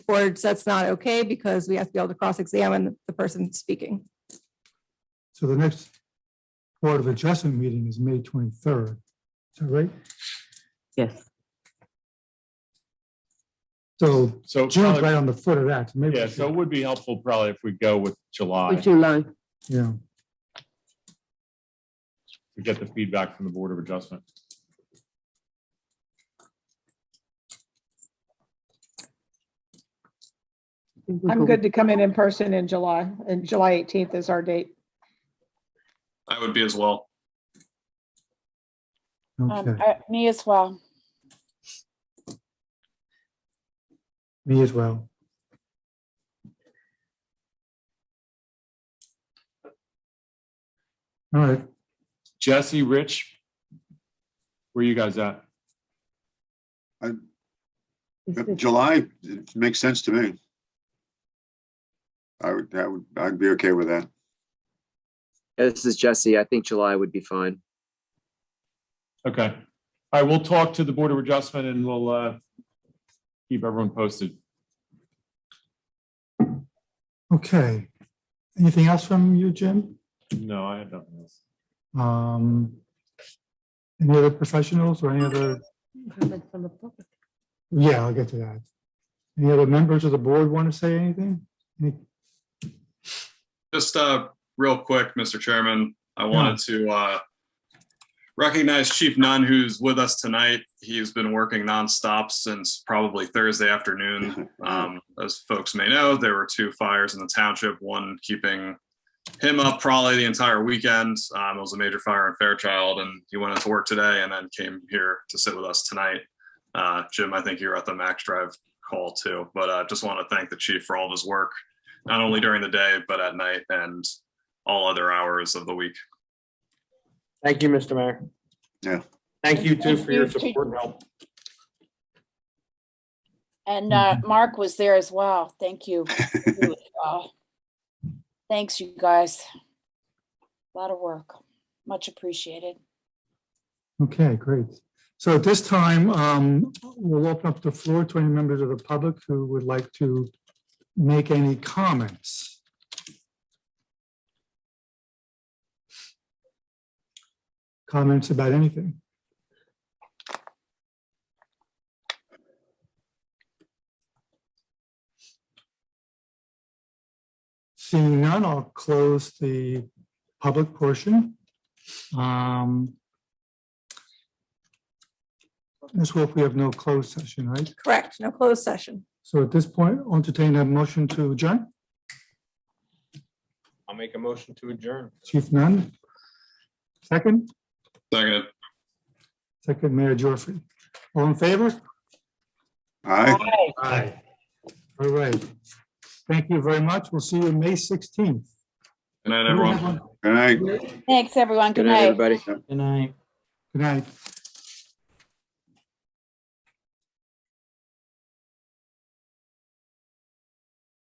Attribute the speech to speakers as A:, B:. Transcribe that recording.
A: board that's not okay because we have to be able to cross-examine the person speaking.
B: So the next Board of Adjustment meeting is May twenty-third. Is that right?
C: Yes.
B: So
D: So,
B: June's
D: probably-
B: right on the foot of that. Maybe we
D: yeah, so it
B: should-
D: would be helpful probably if we go with July
C: Would you like?
B: Yeah,
D: to get the feedback from the Board of Adjustment.
E: I'm good to come in in person in July, and July 18th is our date.
F: I would be as well.
B: okay.
G: Um, I- me as well.
B: Me as well. All right,
D: Jesse, Rich, where you guys at?
H: July, it makes sense to me. I would, I would, I'd be okay with that.
I: Yeah, This is Jesse. I think July would be fine.
D: Okay. All right, we'll talk to the Board of Adjustment and we'll uh, keep everyone posted.
B: okay. Anything else from you, Jim?
D: No, I had nothing else.
B: Um, Any other professionals or any other, yeah, I'll get to that. Any other members of the board want to say anything? Any-
F: Just uh, real quick, Mr. Chairman, I wanted to uh, recognize Chief Nunn, who's with us tonight. He's been working nonstop since probably Thursday afternoon. Um, As folks may know, there were two fires in the township, one keeping him up probably the entire weekend. Um, It was a major fire in Fairchild, and he went into work today and then came here to sit with us tonight. Uh, Jim, I think you were at the Max Drive call too, but I just want to thank the chief for all of his work not only during the day, but at night and all other hours of the week.
J: Thank you, Mr. Mayor.
H: Yeah.
J: Thank you too for your
G: Thank you, Chief.
J: support and help.
G: And uh, Mark was there as well. Thank you. Uh, Thanks, you guys. A Lot of work. Much appreciated.
B: Okay, great. So at this time, um, we'll open up the floor to any members of the public who would like to make any comments. Comments about anything? Seeing none, I'll close the public portion. Um, Ms. Wolf, we have no closed session, right?
A: Correct, no closed session.
B: So at this point, I'll entertain a motion to adjourn.
J: I'll make a motion to adjourn.
B: Chief Nunn. Second,
F: Second,
B: second Mayor Geoffrey. All in favor?
H: All right.
J: Aye.
B: All right. Thank you very much. We'll see you May 16th.
F: good
B: Mm-hmm.
F: night, everyone.
H: Good night.
G: Thanks, everyone.
I: Good
G: Good
I: night,
G: night.
I: everybody.
J: Good night.
B: Good night.